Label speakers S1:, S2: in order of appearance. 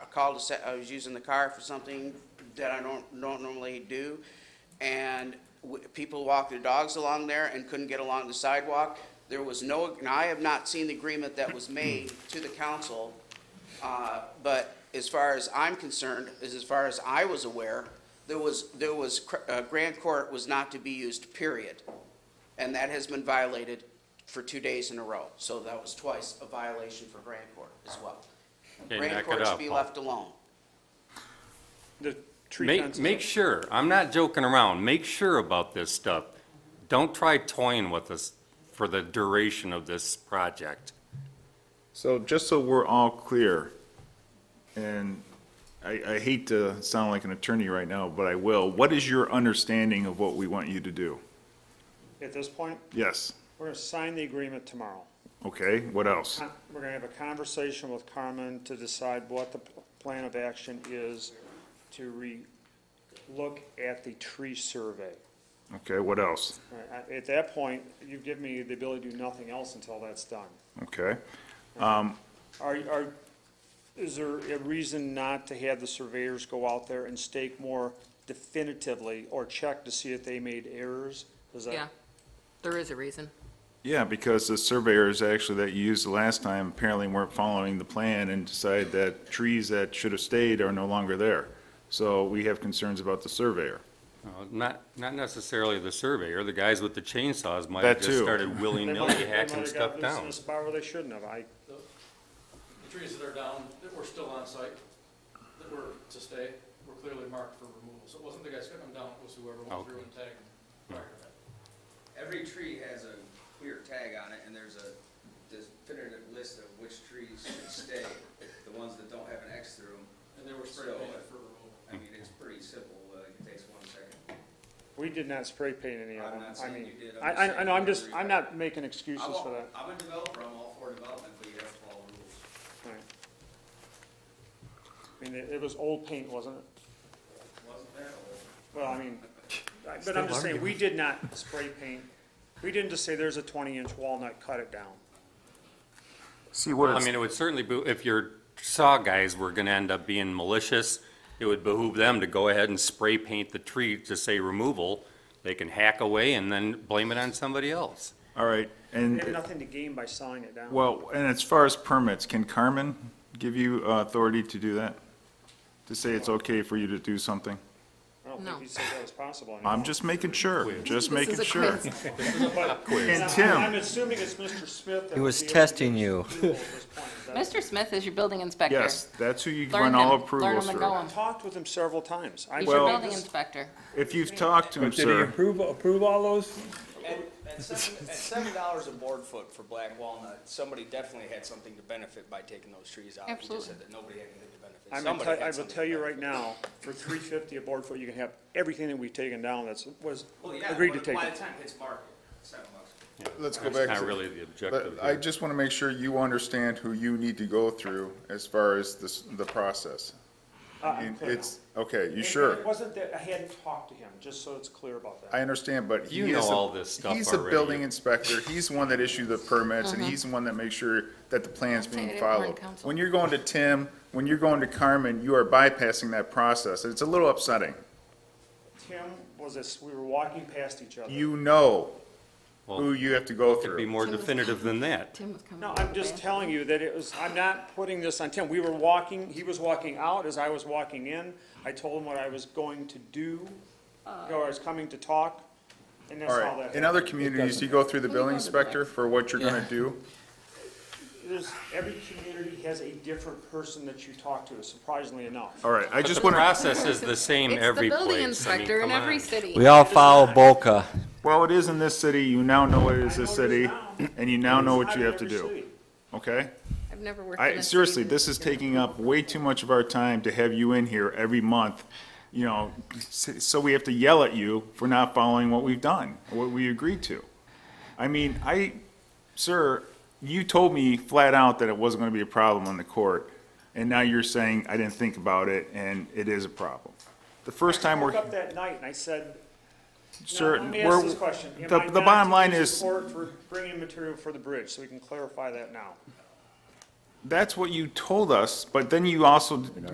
S1: called to say I was using the car for something that I don't, don't normally do. And w- people walked their dogs along there and couldn't get along the sidewalk. There was no, and I have not seen the agreement that was made to the council. Uh, But as far as I'm concerned, is as far as I was aware, there was, there was, cr- uh, Grand Court was not to be used, period. And that has been violated for two days in a row. So that was twice a violation for Grand Court as well.
S2: Okay,
S1: Grand
S2: knock it
S1: Court should
S2: out,
S1: be
S2: Paul.
S1: left alone.
S3: The tree
S2: Make,
S3: fence.
S2: make sure, I'm not joking around, make sure about this stuff. Don't try toying with us for the duration of this project.
S4: So just so we're all clear, and I, I hate to sound like an attorney right now, but I will, what is your understanding of what we want you to do?
S3: At this point,
S4: Yes,
S3: we're gonna sign the agreement tomorrow.
S4: okay, what else?
S3: Con- We're gonna have a conversation with Carmen to decide what the pl- plan of action is to re, look at the tree survey.
S4: Okay, what else?
S3: All right, I- At that point, you give me the ability to do nothing else until that's done.
S4: Okay,
S3: Are, are, is there a reason not to have the surveyors go out there and stake more definitively or check to see if they made errors? Is that?
S5: Yeah, there is a reason.
S4: yeah, because the surveyors actually that you used the last time apparently weren't following the plan and decided that trees that should have stayed are no longer there. So we have concerns about the surveyor.
S2: Uh, Not, not necessarily the surveyor, the guys with the chainsaws might have
S4: That
S2: just
S4: too.
S2: started
S3: They might-
S2: willy-nilly
S3: they might
S2: hacking
S3: have
S2: stuff
S3: got loose in
S2: down.
S3: a spot where they shouldn't have. I,
S6: The trees that are down, that were still on site, that were to stay, were clearly marked for removal. So it wasn't the guys cutting them down, it was whoever went through and tagged them prior to that.
S7: Every tree has a clear tag on it, and there's a definitive list of which trees should stay, the ones that don't have an X through them.
S6: And they were spray
S7: So-
S6: painted for removal.
S7: I mean, it's pretty simple, uh, it takes one second.
S3: we did not spray paint any of
S7: I'm
S3: them.
S7: not
S3: I
S7: saying
S3: mean,
S7: you did, I'm
S3: I,
S7: just
S3: I, I know, I'm
S7: saying
S3: just,
S7: you
S3: I'm
S7: read.
S3: not making
S7: I'm
S3: excuses
S7: all-
S3: for that.
S7: I'm a developer, I'm all for development, but you have to follow rules.
S3: All right. I mean, it, it was old paint, wasn't it?
S7: Wasn't that old?
S3: Well, I mean, I- but I'm just saying, we did not spray paint. We didn't just say, there's a twenty-inch walnut, cut it down.
S4: See, what
S2: I mean, it would certainly be, if your saw guys were gonna end up being malicious, it would behoove them to go ahead and spray paint the tree to say removal. They can hack away and then blame it on somebody else.
S4: All right,
S3: We
S4: and.
S3: have nothing to gain by selling it down.
S4: Well, and as far as permits, can Carmen give you uh, authority to do that? To say it's okay for you to do something?
S3: I don't
S5: No.
S3: think he said that was possible.
S4: I'm just making sure, just
S5: This is
S4: making
S5: a
S4: sure.
S5: quiz.
S3: And
S4: Tim.
S3: I'm assuming it's Mr. Smith. that
S8: He
S3: would
S8: was
S3: be able to give
S8: testing you.
S3: approval at this point. Is that-
S5: Mr. Smith is your building inspector.
S4: Yes, that's who you
S5: Learn
S4: run all
S5: him. Learn
S4: approvals
S5: him
S4: through.
S5: and go
S3: I talked with him several times. I
S5: He's
S4: Well-
S5: your building inspector.
S4: If you've talked to him,
S9: Did he
S4: sir,
S9: approve, approve all those?
S7: At, at seven, at seven dollars a board foot for black walnut, somebody definitely had something to benefit by taking those trees out.
S5: He just said
S7: that nobody had anything to benefit.
S3: I'm gonna tell- I will tell you right now, for three fifty a board foot, you can have everything that we've taken down that's, was agreed to take.
S7: By
S3: it.
S7: the time it hits market, seven bucks.
S10: Let's go
S2: That's
S10: back
S2: not
S10: to,
S2: really the objective
S10: but I
S2: here.
S10: just want to make sure you understand who you need to go through as far as this, the process.
S2: Uh,
S10: I mean, It's, okay, you
S3: Uh, And It
S10: sure?
S3: wasn't that, I hadn't talked to him, just so it's clear about that.
S10: I understand, but he
S2: You
S10: is.
S2: know
S10: a-
S2: all this stuff
S10: He's a
S2: already.
S10: building inspector. He's the one that issued the permits and he's the one that makes sure that the plan's
S5: Say it
S10: being
S5: at Warren
S10: followed.
S5: Council.
S10: When you're going to Tim, when you're going to Carmen, you are bypassing that process. It's a little upsetting.
S3: Tim was this, we were walking past each other.
S10: You know
S2: Well,
S10: who you have to go
S2: It'd
S10: through.
S2: be more
S5: Tim was-
S2: definitive than that.
S5: Tim was coming.
S3: No,
S5: up
S3: I'm
S5: with
S3: just
S5: that.
S3: telling you that it was, I'm not putting this on Tim. We were walking, he was walking out as I was walking in. I told him what I was going to do, or I was coming to talk, and that's
S10: All
S3: all
S10: right,
S3: that.
S10: in other communities, do you go through the building inspector for what you're gonna do?
S3: There's, every community has a different person that you talk to, surprisingly enough.
S10: All right, I
S2: But the
S10: just wanna,
S2: process is the same
S5: It's the
S2: every place.
S5: building
S2: I mean,
S5: inspector in
S2: come
S5: every
S2: on.
S5: city.
S8: We all follow Boca.
S4: well, it is in this city, you now know it is this
S3: I know it is
S4: city,
S3: now.
S4: and you now know what
S3: Not
S4: you
S3: in
S4: have to
S3: every
S4: do,
S3: city.
S4: okay?
S5: I've never worked. in
S4: I,
S5: a
S4: seriously,
S5: city
S4: this
S5: that
S4: is
S5: did it.
S4: taking up way too much of our time to have you in here every month, you know, s- so we have to yell at you for not following what we've done, what we agreed to. I mean, I, sir, you told me flat out that it wasn't gonna be a problem on the court, and now you're saying, I didn't think about it, and it is a problem. The first time
S3: I
S4: we're,
S3: woke up that night and I said,
S4: sir,
S3: Now,
S4: we're.
S3: let me ask this question. Am
S4: the-
S3: I
S4: the
S3: not
S4: bottom
S3: to
S4: line
S3: use
S4: is-
S3: Support for bringing material for the bridge, so we can clarify that now.
S4: That's what you told us, but then you also